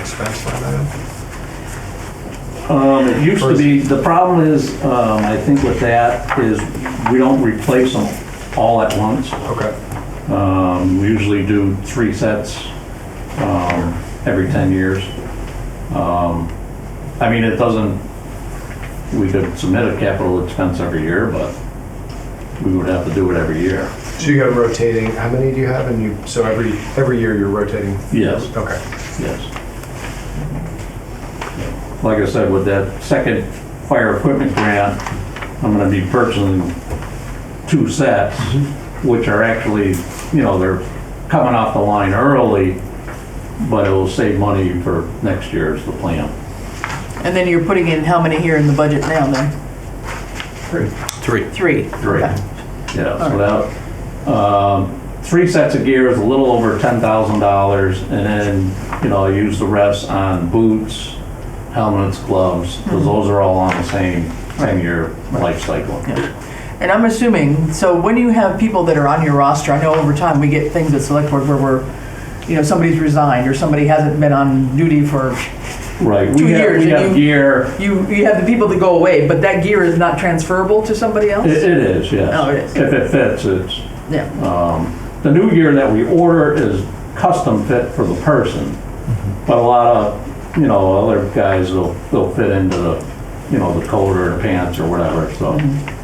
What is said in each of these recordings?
expense line item? Um, it used to be, the problem is, um, I think with that is we don't replace them all at once. Okay, Um, we usually do three sets, um, every ten years. Um, I mean, it doesn't, we could submit a capital expense every year, but we would have to do it every year. so you got rotating, how many do you have? And you, so every, every year you're rotating? Yes. Okay. Yes. Like I said, with that second fire equipment grant, I'm gonna be purchasing two sets, which are actually, you know, they're coming off the line early, but it'll save money for next year is the plan. And then you're putting in how many here in the budget now then? Three. Three. Three. Okay. Yeah, so that, um, three sets of gear is a little over ten thousand dollars, and then, you know, I use the rest on boots, helmets, gloves, Mm-hmm. because those are all on the same ten-year life cycle. And I'm assuming, so when you have people that are on your roster, I know over time we get things at select board where we're, you know, somebody's resigned or somebody hasn't been on duty for, Right, Two we have, years, we and have you- gear, you, you have the people that go away, but that gear is not transferable to somebody else? it, it is, yes. Oh, it is. If it fits, it's, Yeah, the new gear that we order is custom fit for the person, Mm-hmm. but a lot of, you know, other guys will, they'll fit into the, you know, the coat or the pants or whatever, so. Mm-hmm.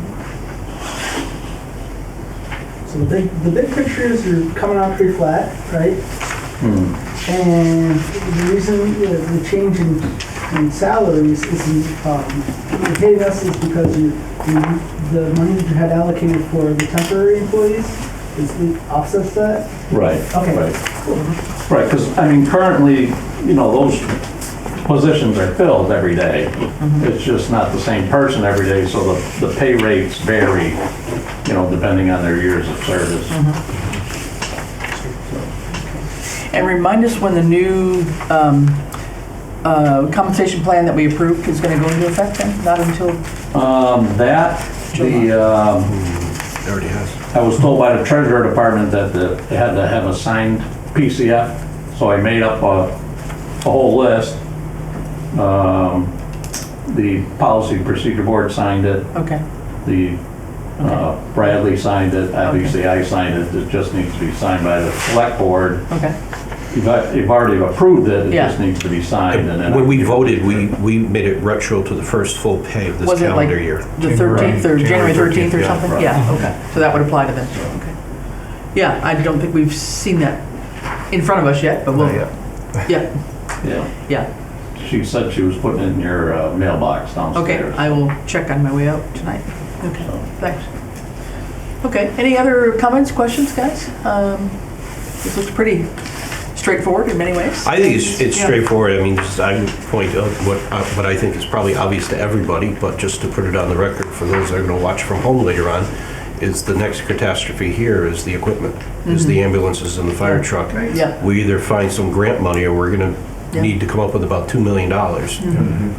So the big, the big picture is you're coming out pretty flat, right? hmm. And the reason, you know, the change in, in salaries is, um, you're hitting us is because you, you- the money that you had allocated for the temporary employees is, it offsets that? Right. Okay. Right, because, I mean, currently, you know, those positions are filled every day. It's just not the same person every day, so the, the pay rates vary, you know, depending on their years of service. and remind us when the new, um, uh, compensation plan that we approved is gonna go into effect then? Not until, Um, that, the, um, Already has. I was told by the treasurer department that the, they had to have a signed PCF, so I made up a, a whole list. Um, the policy procedure board signed it, okay, The, uh, Bradley signed it, obviously I signed it, it just needs to be signed by the select board. okay. You've, al- you've already approved it, it just Yeah. needs to be signed and then. When we voted, we, we made it retro to the first full pay of this Was it like calendar year. The January- 13th or January January 13th or 13th, yeah, something? right. Yeah, okay. So that would apply to them. Okay. Yeah, I don't think we've seen that in front of us yet, but we'll, Not yet. yeah, Yeah, yeah. she said she was putting it in your uh, mailbox Okay, downstairs. I will check on my way out tonight. Okay, thanks. Okay, any other comments, questions, guys? Um, This looks pretty straightforward in many ways. I think it's, it's Yeah. straightforward. I mean, just- I would point out what, uh, what I think is probably obvious to everybody, but just to put it on the record for those that are gonna watch from home later on, is the next catastrophe here is the equipment, is the ambulances and the fire truck. Mm-hmm. Yeah. We either find some grant money or we're gonna Yeah. Mm-hmm. need to come up with about two million dollars.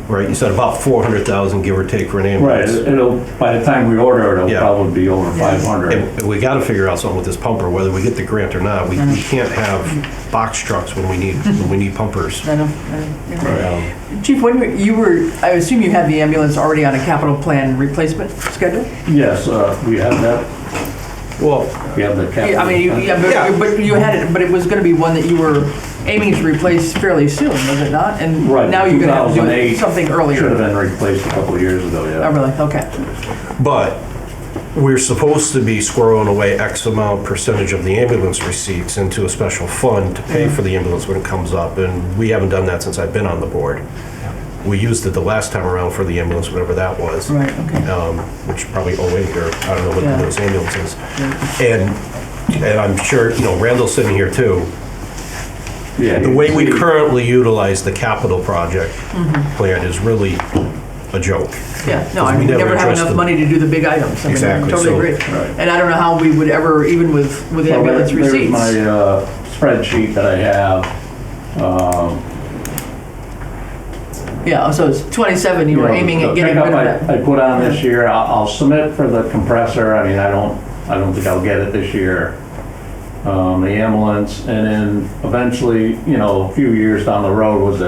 Right, you said about four hundred thousand, give or take, for an Right, ambulance. it'll, by the time we order it, it'll Yeah. probably be over Yeah. five hundred. And we gotta figure out something with this pumper, whether we get the grant or not. We, Mm-hmm. we can't have box trucks when we need, when we need pumpers. I know, I know, yeah. Um, Chief, when were- you were, I assume you had the ambulance already on a capital plan replacement schedule? Yes, uh, we have that, Well, we have the capital. Yeah, I mean, you- yeah, but- but you had it, but it was gonna be one that you were aiming to replace fairly soon, was it not? And Right, now you're gonna have to do it 2008 something Should have earlier. been replaced a couple of years ago, Oh, yeah. really? Okay. But we're supposed to be squirreling away X amount percentage of the ambulance receipts into a special fund to pay for the ambulance when it comes up, and we haven't done that since I've been on the board. We used it the last time around for the ambulance, whatever that was. Right, okay. um, which probably 08 or I don't know Yeah. what those ambulances. And, and I'm sure, you know, Randall's sitting here too. Yeah, The you way can we see- currently utilize the capital project Mm-hmm. plan is really a joke. Yeah, no, I We never never have addressed enough them. money to do the big items. I mean, I Exactly, Totally so- agree. Right. And I don't know how we would ever, even with, with Well, there- ambulance There's receipts. my uh, spreadsheet that I have. Um, Yeah, so it's 27, you you were know, aiming the at getting rid of pickup that. I I put on this year, I'll I'll submit for the compressor, I mean, I don't, I don't think I'll get it this year. Um, The ambulance, and then eventually, you know, a few years down the road was